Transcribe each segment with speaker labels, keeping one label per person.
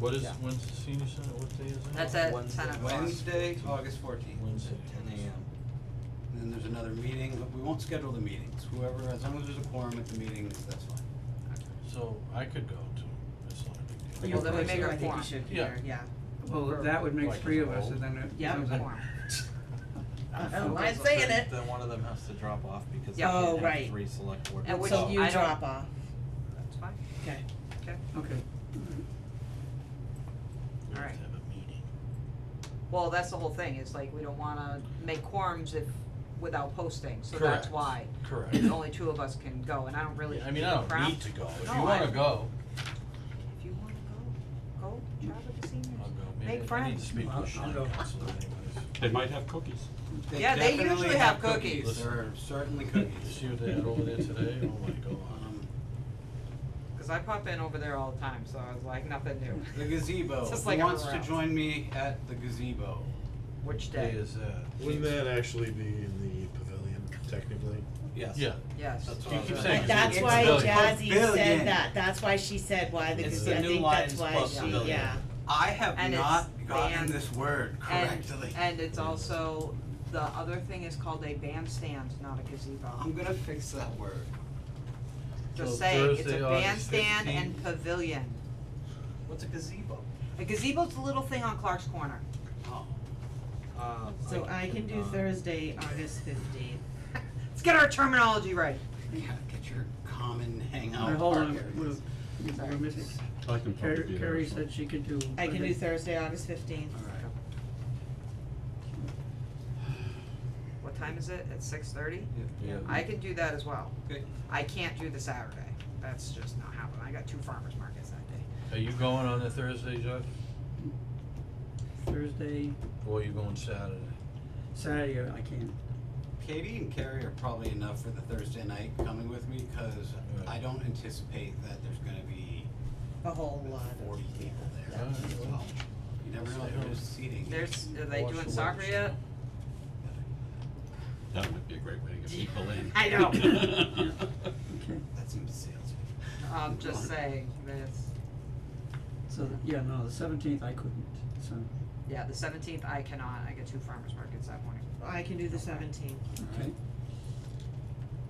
Speaker 1: What is,
Speaker 2: Yeah.
Speaker 1: when's the senior center, what day is it?
Speaker 3: That's at
Speaker 2: Wednesday.
Speaker 3: ten o'clock.
Speaker 4: Wednesday, August fourteenth,
Speaker 1: Wednesday.
Speaker 4: at ten AM. And Then there's another meeting, but we won't schedule the meetings, whoever, as long as there's a quorum at the meetings, that's fine.
Speaker 1: So I could go too, it's not a big
Speaker 3: Well,
Speaker 1: deal.
Speaker 3: then we make our
Speaker 5: I think
Speaker 3: quorum.
Speaker 5: you should be
Speaker 1: Yeah.
Speaker 5: there, yeah.
Speaker 6: Well, that would make
Speaker 1: Like
Speaker 6: three
Speaker 1: it's
Speaker 6: of us,
Speaker 1: old.
Speaker 6: and then it
Speaker 5: Yeah.
Speaker 6: becomes like,
Speaker 5: I
Speaker 3: don't
Speaker 5: don't
Speaker 3: mind
Speaker 5: think so.
Speaker 3: saying oh, it.
Speaker 7: Then one of them has to drop off because they
Speaker 3: Yeah.
Speaker 5: Oh,
Speaker 7: can't have
Speaker 5: right.
Speaker 7: three select board.
Speaker 5: And which
Speaker 3: So
Speaker 5: you
Speaker 3: I don't-
Speaker 5: drop off,
Speaker 3: That's fine,
Speaker 5: okay.
Speaker 3: okay,
Speaker 6: okay.
Speaker 1: We have
Speaker 3: alright.
Speaker 1: to have a meeting.
Speaker 3: Well, that's the whole thing, it's like, we don't wanna make quorums if, without posting, so that's
Speaker 1: Correct.
Speaker 3: why.
Speaker 1: Correct.
Speaker 3: Only two of us can go, and I don't really
Speaker 1: Yeah, I
Speaker 3: give
Speaker 1: mean,
Speaker 3: a
Speaker 1: I don't
Speaker 3: crap.
Speaker 1: need to go, if
Speaker 3: No,
Speaker 1: you
Speaker 3: I-
Speaker 1: wanna go,
Speaker 3: If you wanna go, go, travel to seniors.
Speaker 1: I'll go,
Speaker 3: Make
Speaker 1: maybe I need to
Speaker 3: friends.
Speaker 1: speak
Speaker 2: I'll-
Speaker 1: with
Speaker 2: I'll
Speaker 1: Sean
Speaker 2: go.
Speaker 1: Council anyways.
Speaker 8: They might have cookies.
Speaker 3: Yeah, they
Speaker 4: definitely
Speaker 3: usually have cookies.
Speaker 4: There are certainly
Speaker 1: You
Speaker 4: cookies.
Speaker 1: see what they had over there today, oh my god.
Speaker 4: Um,
Speaker 3: Cause I pop in over there all the time, so I was like, nothing
Speaker 4: The
Speaker 3: new.
Speaker 4: gazebo,
Speaker 3: Just
Speaker 4: who
Speaker 3: like
Speaker 4: wants to
Speaker 3: everywhere else.
Speaker 4: join me at the gazebo?
Speaker 3: Which
Speaker 1: Day
Speaker 3: day?
Speaker 1: is that?
Speaker 9: Wouldn't that actually be in the pavilion, technically?
Speaker 4: Yes.
Speaker 1: Yeah,
Speaker 3: Yes.
Speaker 1: You
Speaker 4: That's what I was
Speaker 1: keep
Speaker 4: gonna
Speaker 1: saying
Speaker 4: say.
Speaker 5: That's
Speaker 1: it's
Speaker 5: why
Speaker 1: pavilion.
Speaker 5: Jazzy
Speaker 4: Pavilion.
Speaker 5: said that, that's why she said why the,
Speaker 4: It's
Speaker 5: gazebo.
Speaker 4: the
Speaker 5: I
Speaker 4: new
Speaker 5: think that's
Speaker 4: Lions
Speaker 5: why
Speaker 4: Club
Speaker 5: she,
Speaker 4: Pavilion.
Speaker 5: yeah.
Speaker 4: I have
Speaker 3: And it's
Speaker 4: not gotten
Speaker 3: banned.
Speaker 4: this word
Speaker 3: And,
Speaker 4: correctly.
Speaker 3: and it's also, the other thing is called a bandstand, not a
Speaker 4: I'm
Speaker 1: Ah,
Speaker 3: gazebo.
Speaker 4: gonna fix that word.
Speaker 1: So
Speaker 3: Just saying, it's a
Speaker 1: Thursday, August
Speaker 3: bandstand
Speaker 1: 15th.
Speaker 3: and pavilion.
Speaker 4: What's a gazebo?
Speaker 3: A gazebo's a little thing on Clark's Corner.
Speaker 4: Oh.
Speaker 7: Um,
Speaker 5: So I can do
Speaker 7: uh,
Speaker 5: Thursday, August fifteenth.
Speaker 3: Let's get our terminology right.
Speaker 4: Yeah, get your common hangout.
Speaker 6: Now, hold
Speaker 4: park
Speaker 6: on,
Speaker 4: areas.
Speaker 6: we're, we're missing,
Speaker 8: I can probably
Speaker 6: Carrie,
Speaker 8: be there.
Speaker 6: Carrie
Speaker 8: so.
Speaker 6: said she could do.
Speaker 5: I can do
Speaker 6: Monday.
Speaker 5: Thursday, August fifteenth.
Speaker 4: Alright.
Speaker 3: What time is it? At six thirty?
Speaker 4: Yeah.
Speaker 3: I can do that as well.
Speaker 4: Okay.
Speaker 3: I can't do the Saturday. That's just not happening. I got two farmers markets that day.
Speaker 1: are you going on a Thursday, Jeff,
Speaker 6: Thursday,
Speaker 1: or are you going Saturday?
Speaker 6: Saturday, I can.
Speaker 4: Katie and Carrie are probably enough for the Thursday night coming with me because
Speaker 1: Right.
Speaker 4: I don't anticipate that there's gonna be
Speaker 5: A whole lot of,
Speaker 4: forty people there.
Speaker 1: Alright, well,
Speaker 4: You never know, there's seating.
Speaker 3: There's, uh, are they
Speaker 1: Watch
Speaker 3: doing
Speaker 1: the
Speaker 3: soccer
Speaker 1: works.
Speaker 3: yet?
Speaker 8: That would be a great way to get people in.
Speaker 3: I know.
Speaker 4: That seems salesy.
Speaker 3: I'm just saying, that's,
Speaker 6: So, yeah, no, the seventeenth I couldn't, so,
Speaker 3: yeah, the seventeenth I cannot. I get two farmers markets that morning.
Speaker 5: I can do the seventeenth.
Speaker 6: okay.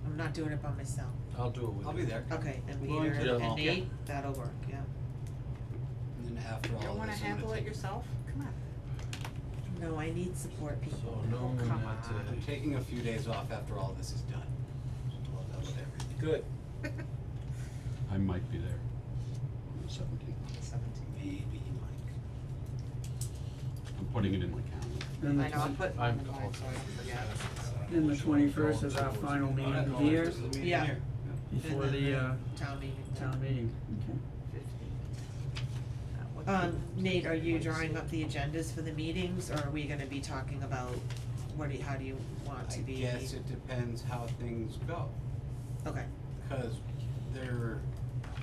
Speaker 5: I'm not doing it by myself.
Speaker 1: I'll do it with you.
Speaker 4: I'll be there.
Speaker 5: Okay, and
Speaker 4: We're going
Speaker 5: Peter
Speaker 1: to the
Speaker 5: and
Speaker 1: mall. Yeah.
Speaker 5: Nate, that'll work, yeah.
Speaker 4: And then after
Speaker 3: You
Speaker 4: all this, I'm
Speaker 3: don't
Speaker 4: gonna
Speaker 3: wanna handle it
Speaker 4: take-
Speaker 3: yourself? Come on.
Speaker 5: No, I need support
Speaker 1: So
Speaker 5: people.
Speaker 1: no,
Speaker 3: Oh, come
Speaker 1: not
Speaker 3: on.
Speaker 4: I'm
Speaker 1: today.
Speaker 4: taking a few days off after all this is done. So we'll have that with everything.
Speaker 2: Good.
Speaker 8: I might be there on the seventeenth.
Speaker 4: Maybe
Speaker 8: I'm putting it in my calendar.
Speaker 6: Then the,
Speaker 3: I know, I'm
Speaker 6: twen-
Speaker 3: putting
Speaker 1: I'm
Speaker 3: mine in line, so I don't forget.
Speaker 6: then the
Speaker 1: So I'm
Speaker 6: twenty-first
Speaker 1: going
Speaker 6: is our
Speaker 1: to-
Speaker 6: final
Speaker 4: Mike.
Speaker 6: meeting of the year,
Speaker 4: This is a meeting
Speaker 5: Yeah.
Speaker 4: here.
Speaker 5: And
Speaker 6: before
Speaker 5: then
Speaker 6: the, uh,
Speaker 5: Town meeting.
Speaker 6: town meeting, okay.
Speaker 5: Um, Nate, are you drawing up the agendas for the meetings, or are we gonna be talking about, what do you, how do you want to
Speaker 4: I
Speaker 5: be?
Speaker 4: guess it depends how things go,
Speaker 5: Okay,
Speaker 4: cause there,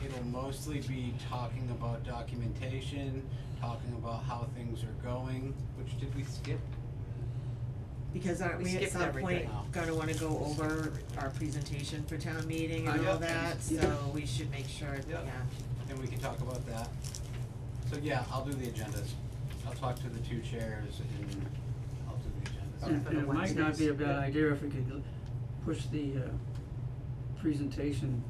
Speaker 4: it'll mostly be talking about documentation, talking about how things are going, which did we skip?
Speaker 5: because aren't
Speaker 3: We
Speaker 5: we at
Speaker 3: skipped
Speaker 5: some point
Speaker 3: everything.
Speaker 5: gonna wanna go over our presentation for town meeting and
Speaker 4: Uh,
Speaker 5: all
Speaker 4: yeah.
Speaker 5: that, so we should make sure, yeah.
Speaker 4: Yeah. And we can talk about that. So yeah, I'll do the agendas. I'll talk to the two chairs and I'll do the agendas.
Speaker 6: And,
Speaker 3: for
Speaker 6: and
Speaker 3: the
Speaker 6: it might not be a
Speaker 3: Wednesdays.
Speaker 6: bad idea if we could l- push the, uh, presentation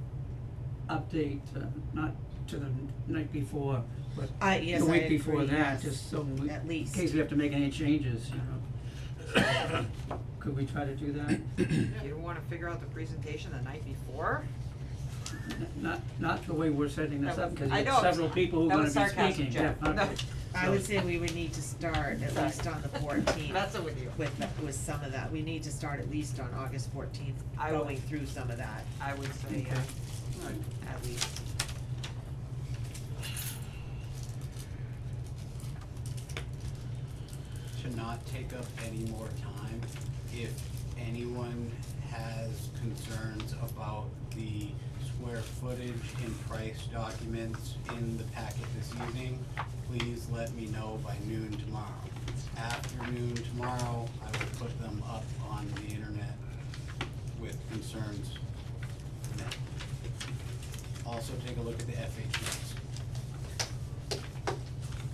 Speaker 6: update, uh, not to the n- night before, but
Speaker 5: I, yes,
Speaker 6: the
Speaker 5: I
Speaker 6: week before
Speaker 5: agree,
Speaker 6: that,
Speaker 5: yes.
Speaker 6: just so we,
Speaker 5: At
Speaker 6: in
Speaker 5: least.
Speaker 6: case we have to make any changes, you know. Could we try to do that?
Speaker 3: You wanna figure out the presentation the night before?
Speaker 6: N- Not, not the way we're setting this up, cause you
Speaker 3: I
Speaker 6: have
Speaker 3: know.
Speaker 6: several people who
Speaker 3: That
Speaker 6: are gonna
Speaker 3: was
Speaker 6: be
Speaker 3: sarcasm,
Speaker 6: speaking, yeah,
Speaker 3: Jeff.
Speaker 6: okay.
Speaker 5: I would say we would need to start at
Speaker 3: Sorry.
Speaker 5: least on the fourteenth
Speaker 3: Messing with you.
Speaker 5: with, with some of that, we need to start at least on August fourteenth,
Speaker 3: I would-
Speaker 5: going through some of that.
Speaker 3: I would say, yeah,
Speaker 4: Alright.
Speaker 3: at least.
Speaker 4: to not take up any more time, if anyone has concerns about the square footage and price documents in the packet this evening, please let me know by noon tomorrow. Afternoon tomorrow, I will put them up on the internet with concerns. then. Also, take a look at the FAQs.